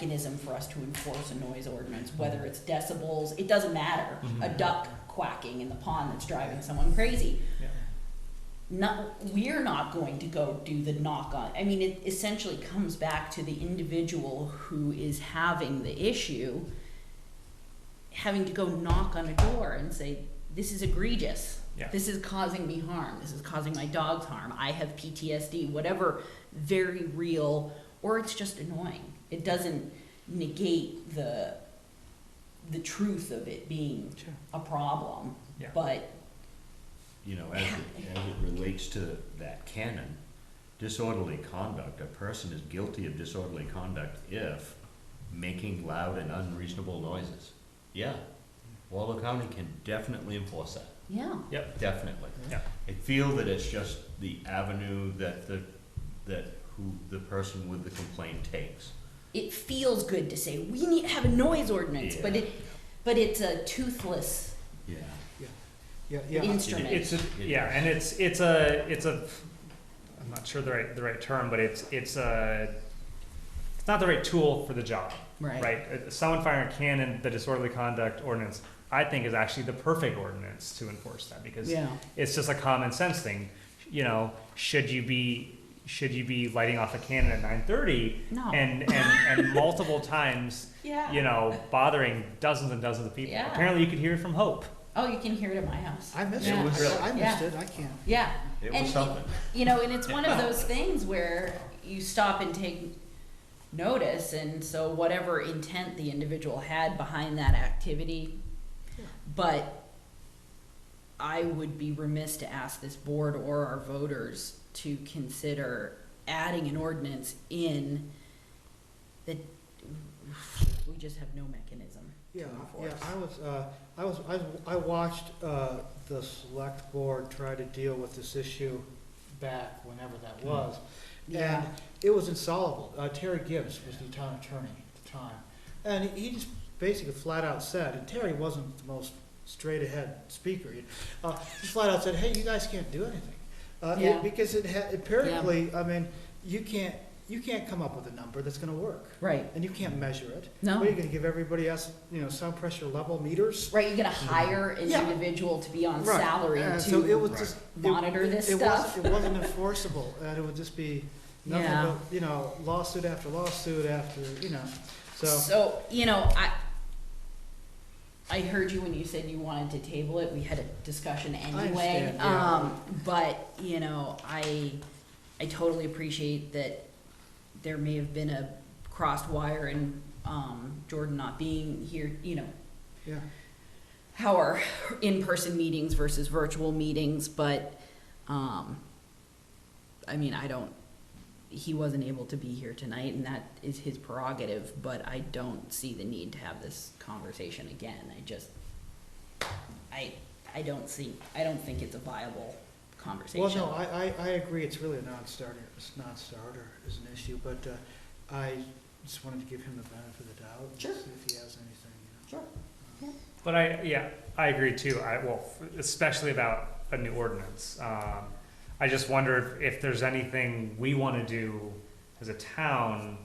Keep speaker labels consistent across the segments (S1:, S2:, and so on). S1: mechanism for us to enforce a noise ordinance, whether it's decibels, it doesn't matter. A
S2: Mhm.
S1: duck quacking in the pond that's driving someone crazy.
S2: Yeah.
S1: Not, we're not going to go do the knock on, I mean, it essentially comes back to the individual who is having the issue having to go knock on a door and say, this is egregious.
S2: Yeah.
S1: This is causing me harm. This is causing my dogs harm. I have PTSD, whatever very real, or it's just annoying. It doesn't negate the, the truth of it being
S2: Sure.
S1: a problem.
S2: Yeah.
S1: But,
S3: you know, as it, as it relates to that canon, disorderly conduct, a person is guilty of disorderly conduct if making loud and unreasonable noises. Yeah, Waldo County can definitely enforce that,
S1: yeah,
S2: Yep.
S3: definitely.
S2: Yeah.
S3: I feel that it's just the avenue that the, that who, the person with the complaint takes.
S1: it feels good to say, we need to have a noise ordinance, but
S3: Yeah.
S1: it, but it's a toothless
S3: Yeah.
S2: Yeah, yeah.
S1: instrument.
S2: It's a,
S3: It
S2: yeah, and it's it's a it's a I'm not sure the right the right term, but it's it's a it's not the right tool for the job,
S1: Right.
S2: right? Uh, Someone firing a cannon, the disorderly conduct ordinance, I think is actually the perfect ordinance to enforce that because
S1: Yeah.
S2: it's just a common sense thing. You know, should you be should you be lighting off a cannon at 9:30
S1: No.
S2: and and and multiple times,
S1: Yeah.
S2: you know, bothering dozens and dozens of people.
S1: Yeah.
S2: Apparently, you could hear it from Hope.
S1: Oh, you can hear it at my house.
S4: I missed
S1: Yeah.
S4: it.
S3: Really?
S4: I missed
S1: Yeah.
S4: it. I can't.
S1: Yeah.
S3: It
S1: And-
S3: was something.
S1: You know, and it's one of those things where you stop and take notice, and so whatever intent the individual had behind that activity, but I would be remiss to ask this board or our voters to consider adding an ordinance in that we just have no mechanism to
S4: Yeah,
S1: enforce.
S4: yeah. I was, uh, I was, I, was- I watched uh, the select board try to deal with this issue back whenever that was,
S1: Yeah.
S4: and it was insoluble. Uh, Terry Gibbs was the town attorney at the time, and he just basically flat out said, and Terry wasn't the most straight ahead speaker. you- Uh, he flat out said, "Hey, you guys can't do anything," uh, it-
S1: Yeah.
S4: because it had apparently. I mean, you can't, you can't come up with a number that's going to work.
S1: Right.
S4: And you can't measure it.
S1: No.
S4: What, are you gonna give everybody else, you know, sound pressure level meters?
S1: Right, you're gonna hire an
S4: Yeah.
S1: individual to be on
S4: Right.
S1: salary
S4: And so it
S1: to
S4: was just. it-
S1: monitor this
S4: it wasn't-
S1: stuff.
S4: It wasn't enforceable, and it would just be nothing
S1: Yeah.
S4: but, you know, lawsuit after lawsuit after, you know, so,
S1: So, you know, I, I heard you when you said you wanted to table it, we had a discussion anyway.
S4: understand, yeah.
S1: Um, but, you know, I, I totally appreciate that there may have been a crossed wire and, um, Jordan not being here, you know,
S4: yeah.
S1: how are in-person meetings versus virtual meetings, but, um, I mean, I don't, he wasn't able to be here tonight, and that is his prerogative, but I don't see the need to have this conversation again, I just, I, I don't see, I don't think it's a viable conversation.
S4: Well, no, I, I, I agree, it's really a non-starter, it's non-starter is an issue, but, uh, I just wanted to give him the benefit of the doubt. and
S1: Sure.
S4: See if he has anything, you
S1: Sure.
S2: But I, yeah, I agree too. I, well, especially about a new ordinance. Um, I just wonder if, if there's anything we want to do as a town.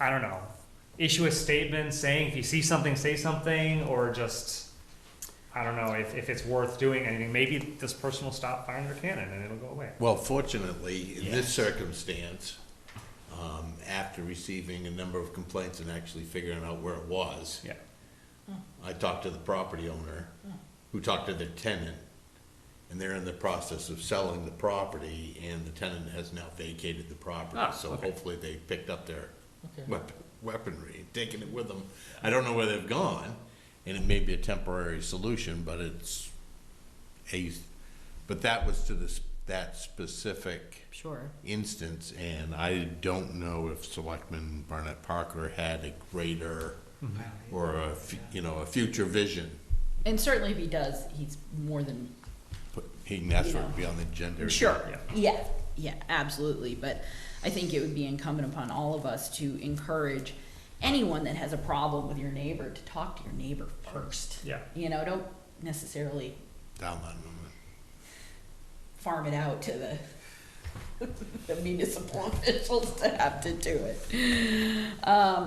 S2: I don't know. Issue a statement saying if you see something, say something, or just, I don't know, if, if it's worth doing anything. Maybe this person will stop firing their cannon and it'll go away.
S5: Well, fortunately, in this circumstance, um, after receiving a number of complaints and actually figuring out where it was,
S2: Yeah.
S5: I talked to the property owner, who talked to the tenant, and they're in the process of selling the property, and the tenant has now vacated the
S2: Ah,
S5: property, so
S2: okay.
S5: hopefully they picked up their
S4: know. Okay.
S5: wep- weaponry, taking it with them. I don't know where they've gone, and it may be a temporary solution, but it's a, but that was to this, that specific
S1: Sure,
S5: instance, and I don't know if Selectman Barnett Parker had a greater or a, fu- you know, a future vision.
S1: and certainly if he does, he's more than
S5: But He can ask for it to be on the agenda.
S1: Sure,
S2: Yeah.
S1: yeah, yeah, absolutely, but I think it would be incumbent upon all of us to encourage anyone that has a problem with your neighbor to talk to your neighbor first.
S2: Yeah.
S1: You know, don't necessarily
S5: Down that moment.
S1: farm it out to the the municipal officials to have to do it. Um,